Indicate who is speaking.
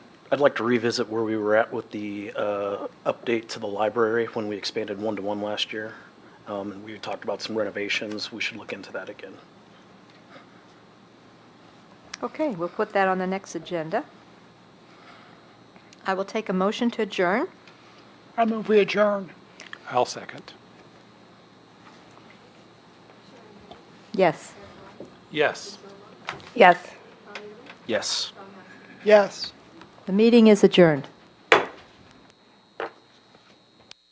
Speaker 1: I'd like to revisit where we were at with the uh, update to the library when we expanded one-to-one last year. Um, and We talked about some renovations. We should look into that again.
Speaker 2: Okay, we'll put that on the next agenda. I will take a motion to adjourn.
Speaker 3: I move we adjourn.
Speaker 4: I'll second.
Speaker 2: Yes.
Speaker 4: Yes.
Speaker 2: Yes.
Speaker 1: Yes.
Speaker 3: Yes.
Speaker 2: The meeting is adjourned.